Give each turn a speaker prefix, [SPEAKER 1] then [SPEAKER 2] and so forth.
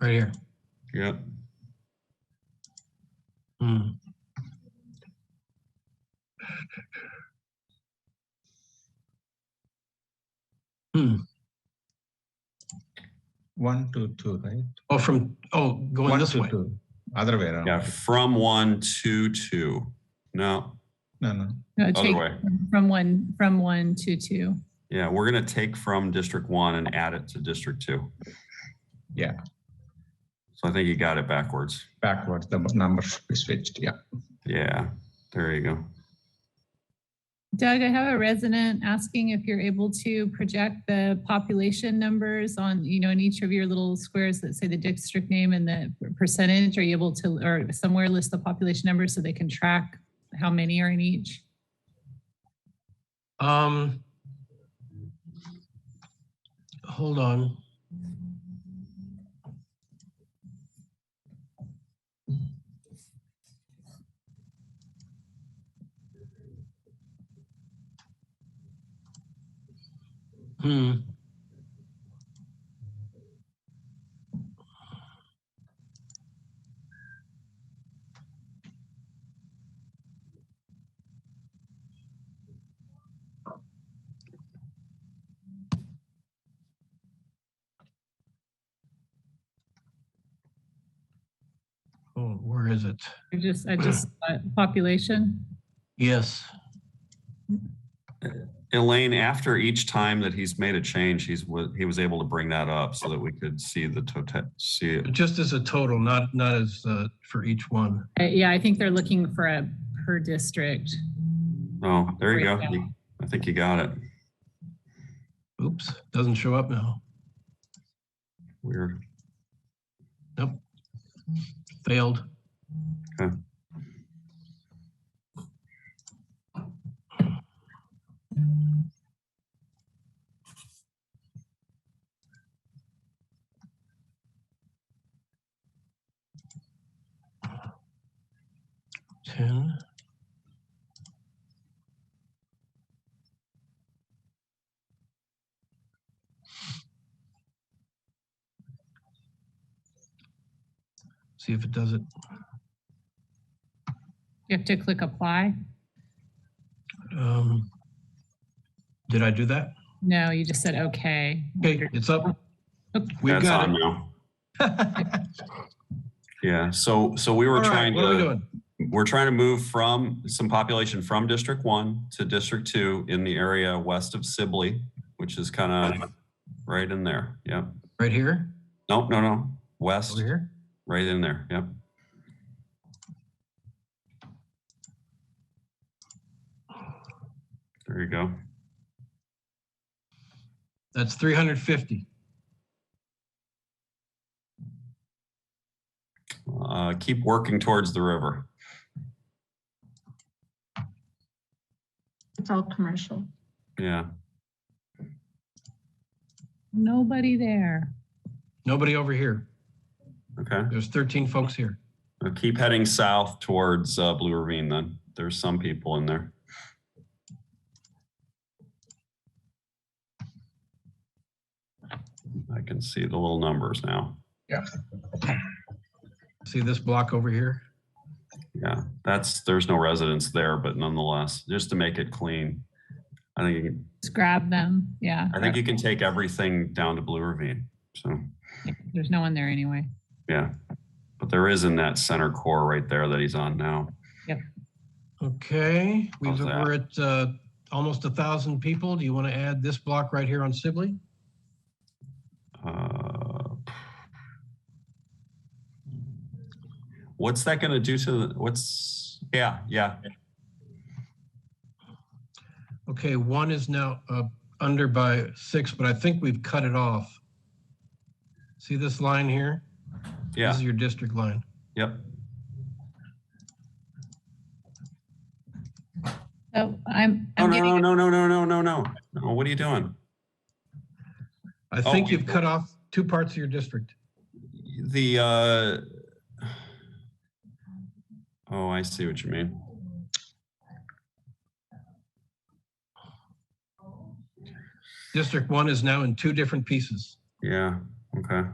[SPEAKER 1] right here.
[SPEAKER 2] Yep.
[SPEAKER 1] Hmm.
[SPEAKER 3] One, two, two, right?
[SPEAKER 1] Oh, from, oh, going
[SPEAKER 3] One,
[SPEAKER 1] this
[SPEAKER 3] two,
[SPEAKER 1] way.
[SPEAKER 3] two. Other way around.
[SPEAKER 2] Yeah, from one to two. No,
[SPEAKER 3] No, no.
[SPEAKER 4] No,
[SPEAKER 2] other
[SPEAKER 4] take
[SPEAKER 2] way.
[SPEAKER 4] from one, from one to two.
[SPEAKER 2] Yeah, we're gonna take from District One and add it to District Two.
[SPEAKER 3] Yeah.
[SPEAKER 2] So I think you got it backwards.
[SPEAKER 3] Backwards, the number should be switched. Yeah.
[SPEAKER 2] Yeah, there you go.
[SPEAKER 4] Doug, I have a resident asking if you're able to project the population numbers on, you know, in each of your little squares that say the district name and the percentage. Are you able to, or somewhere list the population numbers so they can track how many are in each?
[SPEAKER 1] Um, hold on. Hmm. Oh, where is it?
[SPEAKER 4] I just, I just, uh, population?
[SPEAKER 1] Yes.
[SPEAKER 2] Elaine, after each time that he's made a change, he's, wa- he was able to bring that up so that we could see the total, see it.
[SPEAKER 1] Just as a total, not, not as, uh, for each one.
[SPEAKER 4] Uh, Yeah, I think they're looking for a per district.
[SPEAKER 2] Oh, there you go.
[SPEAKER 4] breakdown.
[SPEAKER 2] You- I think you got it.
[SPEAKER 1] Oops, doesn't show up now.
[SPEAKER 2] Weird.
[SPEAKER 1] Failed.
[SPEAKER 2] Okay.
[SPEAKER 1] Ten. See if it does it.
[SPEAKER 4] You have to click apply?
[SPEAKER 1] Um, Did I do that?
[SPEAKER 4] No, you just said okay.
[SPEAKER 1] Okay, it's up. We've
[SPEAKER 2] That's
[SPEAKER 1] got
[SPEAKER 2] on
[SPEAKER 1] it.
[SPEAKER 2] now. Yeah, so, so we
[SPEAKER 1] All
[SPEAKER 2] were
[SPEAKER 1] right,
[SPEAKER 2] trying
[SPEAKER 1] what are we
[SPEAKER 2] to,
[SPEAKER 1] doing?
[SPEAKER 2] we're trying to move from some population from District One to District Two in the area west of Sibley, which is kind of right in there. Yep.
[SPEAKER 1] Right here,
[SPEAKER 2] Nope, no, no. West,
[SPEAKER 1] over here.
[SPEAKER 2] right in there. Yep. There you go.
[SPEAKER 1] That's 350.
[SPEAKER 2] Uh, keep working towards the river.
[SPEAKER 5] It's all commercial.
[SPEAKER 2] Yeah.
[SPEAKER 4] Nobody there.
[SPEAKER 1] Nobody over here.
[SPEAKER 2] Okay.
[SPEAKER 1] There's 13 folks here.
[SPEAKER 2] Now keep heading south towards uh, Blue Ravine. Then there's some people in there. I can see the little numbers now.
[SPEAKER 1] See this block over here?
[SPEAKER 2] Yeah, that's there's no residents there, but nonetheless, just to make it clean, I think you can,
[SPEAKER 4] Just grab them. Yeah,
[SPEAKER 2] I think you can take everything down to Blue Ravine. So
[SPEAKER 4] there's no one there anyway.
[SPEAKER 2] yeah, but there is in that center core right there that he's on now.
[SPEAKER 1] Okay, we-
[SPEAKER 2] How's that?
[SPEAKER 1] we're at uh, almost a 1,000 people. Do you want to add this block right here on Sibley?
[SPEAKER 2] Uh, What's that going to do to the, what's, yeah, yeah,
[SPEAKER 1] Okay, one is now uh, under by six, but I think we've cut it off. See this line here? This
[SPEAKER 2] yeah,
[SPEAKER 1] is your district line.
[SPEAKER 2] yep.
[SPEAKER 4] So I'm,
[SPEAKER 2] Oh,
[SPEAKER 4] I'm
[SPEAKER 2] no,
[SPEAKER 4] getting,
[SPEAKER 2] no, no, no, no, no, no, no. What are you doing?
[SPEAKER 1] I
[SPEAKER 2] Oh,
[SPEAKER 1] think
[SPEAKER 2] we've
[SPEAKER 1] you've cut off two parts of your district.
[SPEAKER 2] The, uh, oh, I see what you mean.
[SPEAKER 1] District one is now in two different pieces.
[SPEAKER 2] Yeah, okay.